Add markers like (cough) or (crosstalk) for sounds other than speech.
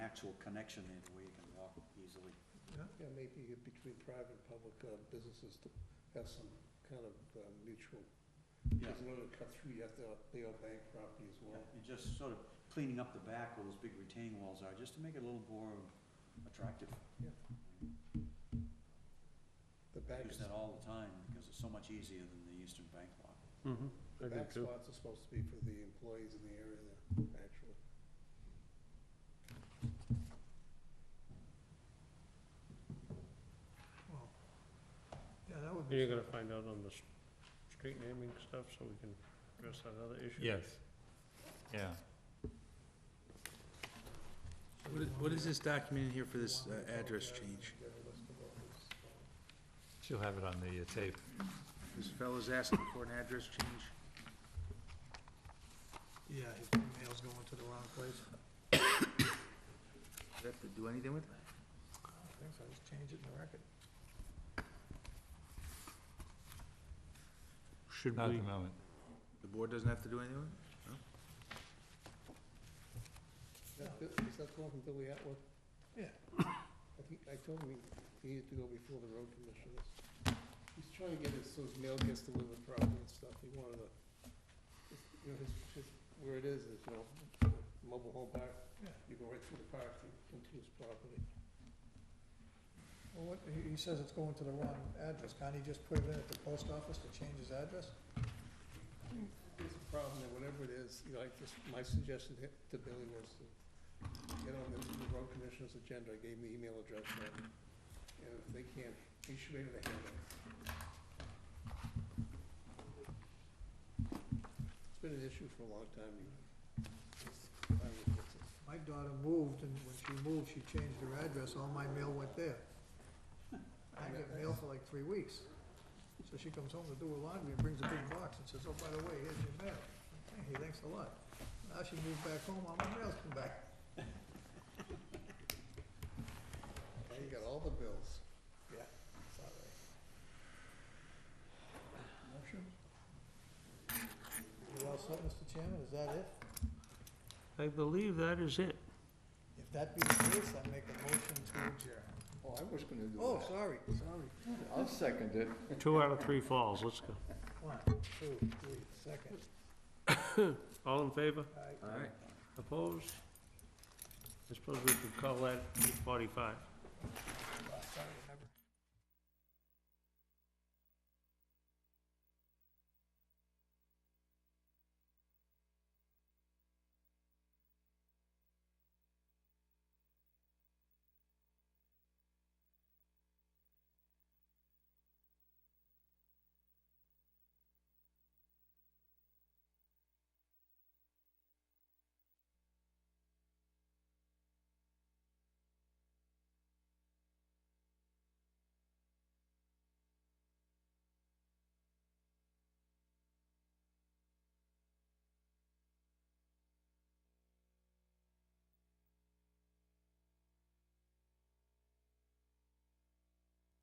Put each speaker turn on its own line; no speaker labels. actual connection in where you can walk easily.
Yeah, maybe between private and public uh, businesses to have some kind of uh, mutual,
Yeah,
because in order to cut through, you have to, they own bank property as well.
you're just sort of cleaning up the back where those big retaining walls are, just to make it a little more attractive.
Yeah. The
I
back,
use that all the time because it's so much easier than the eastern bank lot.
Mm-hmm, I
the
do
back
too.
spots are supposed to be for the employees in the area there, actually.
Well, yeah, that would
And
be,
you're gonna find out on the s- street naming stuff, so we can address that other issue?
Yes. Yeah.
what is
this document here for this
uh,
uh,
Yeah, let's go over this.
She'll have it on the uh, tape.
This fellow's asking for an address change.
yeah, his email's going to the wrong place.
Does that have to do anything with it?
I think so, just change it in the record.
Should
Not at
we,
the moment.
The board doesn't have to do anything with it?
That Bill- Is that the one from Billy Atwood?
Yeah.
(coughs) I think, I told him he needed to go before the road commissioners. He's trying to get it so his mail gets delivered properly and stuff, he wanted to, his- you know, his, his, where it is, is, you know, mobile home park,
Yeah.
you go right through the park and into his property.
Well, what, he, he says it's going to the wrong address. Can't he just put it in at the post office to change his address?
There's a problem there, whatever it is, you know, I just, my suggestion to to Billy was to get on the the road commissioner's agenda, I gave him the email address, and and if they can't, he should be able to handle it. It's been an issue for a long time, you. I would fix it.
My daughter moved, and when she moved, she changed her address, all my mail went there. I didn't get mail for like three weeks. So she comes home to do her laundry and brings a big box and says, oh, by the way, here's your mail. Hey, thanks a lot. Now she moved back home, all my mail's come back.
Now you got all the bills.
Yeah, it's all right. Motion? You all set, Mr. Chairman, is that it?
I believe that is it.
If that be the case, I make a motion to adjourn.
Oh, I was gonna do
Oh, sorry, sorry.
I'll second it.
Two out of three falls, let's go.
One, two, three, second.
All in favor?
Aye.
All right.
Opposed? I suppose we could call that eight forty-five.
Sorry, remember.